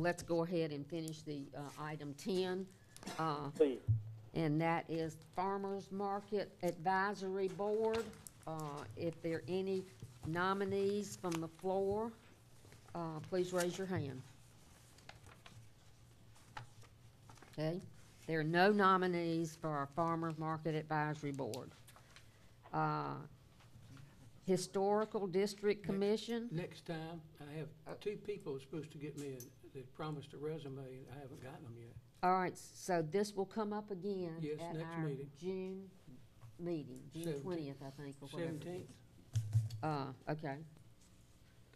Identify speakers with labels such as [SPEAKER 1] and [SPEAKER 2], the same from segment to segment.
[SPEAKER 1] let's go ahead and finish the, uh, item ten. Uh,
[SPEAKER 2] please.
[SPEAKER 1] and that is Farmers Market Advisory Board. Uh, If there are any nominees from the floor, uh, please raise your hand. Okay, there are no nominees for our Farmers Market Advisory Board. Uh, Historical District Commission,
[SPEAKER 3] Next time, I have two people supposed to get me, a- that promised a resume, and I haven't gotten them yet.
[SPEAKER 1] all right, so this will come up again.
[SPEAKER 3] Yes,
[SPEAKER 1] at
[SPEAKER 3] next
[SPEAKER 1] our
[SPEAKER 3] meeting.
[SPEAKER 1] June meeting, June
[SPEAKER 3] Seventeenth.
[SPEAKER 1] twentieth, I think, or whatever. it
[SPEAKER 3] Seventeenth,
[SPEAKER 1] is. Uh, okay.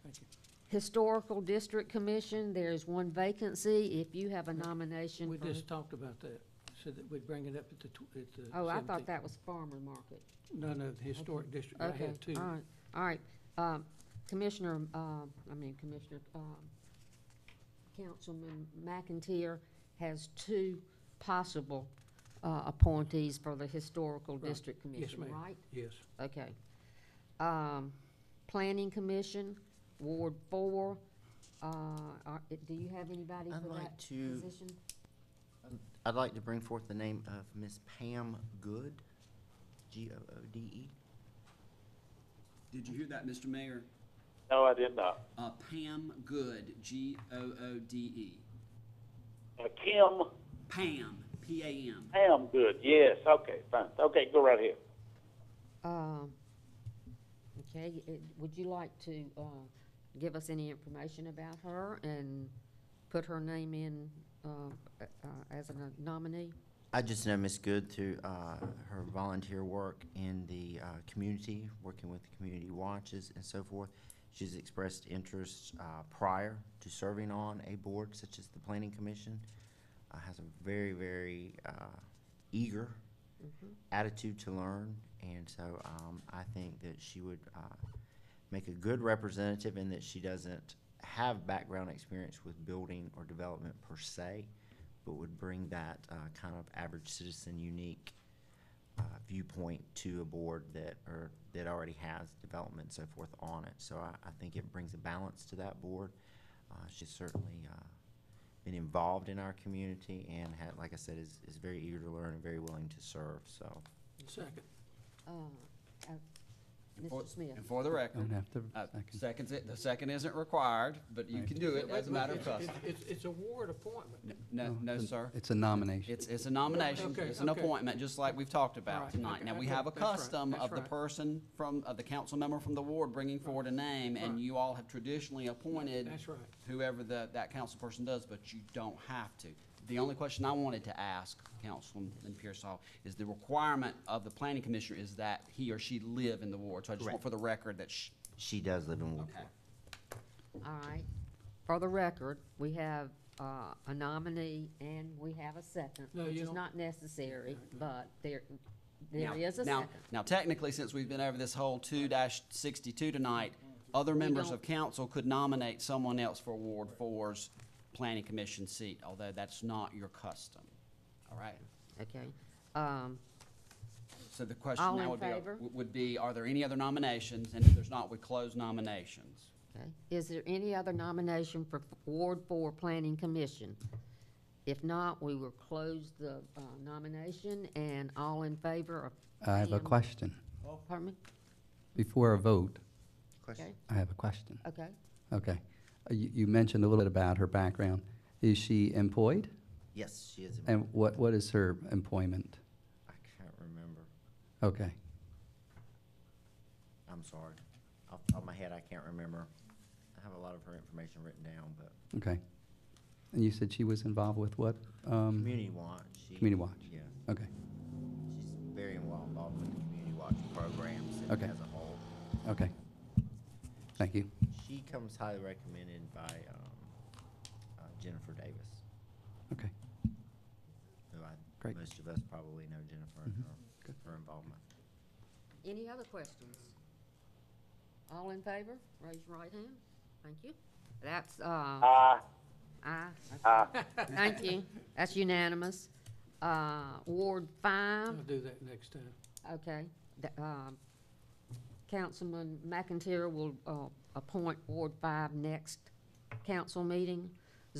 [SPEAKER 3] thank you.
[SPEAKER 1] Historical District Commission, there is one vacancy. If you have a nomination
[SPEAKER 3] We
[SPEAKER 1] for,
[SPEAKER 3] just talked about that, said that we'd bring it up at the tw- at the
[SPEAKER 1] oh, I thought
[SPEAKER 3] 17th.
[SPEAKER 1] that was Farmer Market.
[SPEAKER 3] No, no, the historic district, I
[SPEAKER 1] Okay,
[SPEAKER 3] have two.
[SPEAKER 1] all right, all right. Um, Commissioner, um, I mean Commissioner, um, Councilman McIntyre has two possible uh, appointees for the Historical
[SPEAKER 3] Right.
[SPEAKER 1] District Commission,
[SPEAKER 3] ma'am.
[SPEAKER 1] right?
[SPEAKER 3] Yes,
[SPEAKER 1] Okay. Um, Planning Commission, Ward Four, uh, are- do you have anybody
[SPEAKER 4] I'd
[SPEAKER 1] for that
[SPEAKER 4] like to,
[SPEAKER 1] position?
[SPEAKER 4] I'd like to bring forth the name of Miss Pam Good, G-O-O-D-E.
[SPEAKER 5] Did you hear that, Mr. Mayor?
[SPEAKER 2] No, I did not.
[SPEAKER 5] Uh, Pam Good, G O O D E.
[SPEAKER 2] Uh, Kim,
[SPEAKER 5] Pam, P A M.
[SPEAKER 2] I am good, yes, okay, fine, okay, go right ahead.
[SPEAKER 1] Um, okay, it- would you like to, uh, give us any information about her and put her name in, uh, uh, as a nominee?
[SPEAKER 4] I just know Miss Good through uh, her volunteer work in the uh, community, working with the community watches and so forth. She's expressed interest uh, prior to serving on a board such as the Planning Commission. Uh, Has a very, very uh, eager attitude to learn, and so um, I think that she would uh, make a good representative in that she doesn't have background experience with building or development per se, but would bring that uh, kind of average citizen unique uh, viewpoint to a board that or that already has development and so forth on it. So I, I think it brings a balance to that board. Uh, she's certainly uh, been involved in our community and had, like I said, is, is very eager to learn and very willing to serve. So
[SPEAKER 3] second.
[SPEAKER 1] Uh, uh,
[SPEAKER 5] And for-
[SPEAKER 1] Mr. Smith?
[SPEAKER 5] And for the record,
[SPEAKER 6] Don't have to
[SPEAKER 5] uh,
[SPEAKER 6] second.
[SPEAKER 5] seconds, it- the second isn't required, but you
[SPEAKER 6] Right.
[SPEAKER 5] can do it as a matter of
[SPEAKER 3] It's-
[SPEAKER 5] custom.
[SPEAKER 3] It's, it's- it's a ward appointment.
[SPEAKER 5] No, no,
[SPEAKER 6] it's-
[SPEAKER 5] sir.
[SPEAKER 6] It's a nomination.
[SPEAKER 5] It's, it's a nomination,
[SPEAKER 3] Okay,
[SPEAKER 5] it's an
[SPEAKER 3] okay.
[SPEAKER 5] appointment, just like we've talked about
[SPEAKER 3] Alright,
[SPEAKER 5] tonight.
[SPEAKER 3] okay,
[SPEAKER 5] Now, we
[SPEAKER 3] okay,
[SPEAKER 5] have a
[SPEAKER 3] that's right,
[SPEAKER 5] custom
[SPEAKER 3] that's
[SPEAKER 5] of the
[SPEAKER 3] right.
[SPEAKER 5] person from, of the council member from the ward bringing forward a name, and
[SPEAKER 3] Right.
[SPEAKER 5] you all have traditionally appointed
[SPEAKER 3] That's right.
[SPEAKER 5] whoever the, that council person does, but you don't have to. The only question I wanted to ask Councilman Pearsall is the requirement of the planning commissioner is that he or she live in the ward. So I just
[SPEAKER 4] Correct.
[SPEAKER 5] want for the record that sh
[SPEAKER 4] she does live in Woodport.
[SPEAKER 1] All right. For the record, we have, uh, a nominee and we have a second,
[SPEAKER 3] No,
[SPEAKER 1] which
[SPEAKER 3] you
[SPEAKER 1] is
[SPEAKER 3] don't-
[SPEAKER 1] not necessary, but there,
[SPEAKER 5] Now-
[SPEAKER 1] there is a
[SPEAKER 5] now-
[SPEAKER 1] second.
[SPEAKER 5] Now technically, since we've been over this whole two sixty-two tonight, other
[SPEAKER 1] We
[SPEAKER 5] members
[SPEAKER 1] don't-
[SPEAKER 5] of council could nominate someone else for Ward Four's planning commission seat, although that's not your custom. All right?
[SPEAKER 1] Okay, um,
[SPEAKER 5] So the question
[SPEAKER 1] All in
[SPEAKER 5] now would be, uh,
[SPEAKER 1] favor?
[SPEAKER 5] w- would be, are there any other nominations? And if there's not, we close nominations.
[SPEAKER 1] Okay, is there any other nomination for Ward Four Planning Commission? If not, we will close the uh, nomination and all in favor of.
[SPEAKER 6] I have a
[SPEAKER 1] Pam-
[SPEAKER 6] question.
[SPEAKER 1] Pardon me?
[SPEAKER 6] Before a vote,
[SPEAKER 4] Question?
[SPEAKER 1] Okay,
[SPEAKER 6] I have a question.
[SPEAKER 1] okay.
[SPEAKER 6] Okay. Uh, You, you mentioned a little bit about her background. Is she employed?
[SPEAKER 4] Yes, she is. in-
[SPEAKER 6] And what, what is her employment?
[SPEAKER 4] I can't remember.
[SPEAKER 6] Okay.
[SPEAKER 4] I'm sorry. Off the top of my head, I can't remember. I have a lot of her information written down, but
[SPEAKER 6] Okay. And you said she was involved with what? Um,
[SPEAKER 4] Community Watch. she-
[SPEAKER 6] Community Watch.
[SPEAKER 4] Yeah,
[SPEAKER 6] okay.
[SPEAKER 4] she's very well involved with the Community Watch programs and
[SPEAKER 6] Okay.
[SPEAKER 4] as a whole.
[SPEAKER 6] Okay. Thank you.
[SPEAKER 4] She comes highly recommended by um, uh, Jennifer Davis,
[SPEAKER 6] Okay.
[SPEAKER 4] who I
[SPEAKER 6] Great. Mm-hmm.
[SPEAKER 4] most of us probably know Jennifer and her, her involvement.
[SPEAKER 1] Any other questions? All in favor, raise your right hand. Thank you. That's, uh,
[SPEAKER 2] Aye,
[SPEAKER 1] aye.
[SPEAKER 2] aye.
[SPEAKER 1] Ah. Thank you. That's unanimous. Uh, Ward
[SPEAKER 3] I'll
[SPEAKER 1] Five,
[SPEAKER 3] do that next time.
[SPEAKER 1] Okay, the, um, Councilman McIntyre will, uh, appoint Ward Five next council meeting.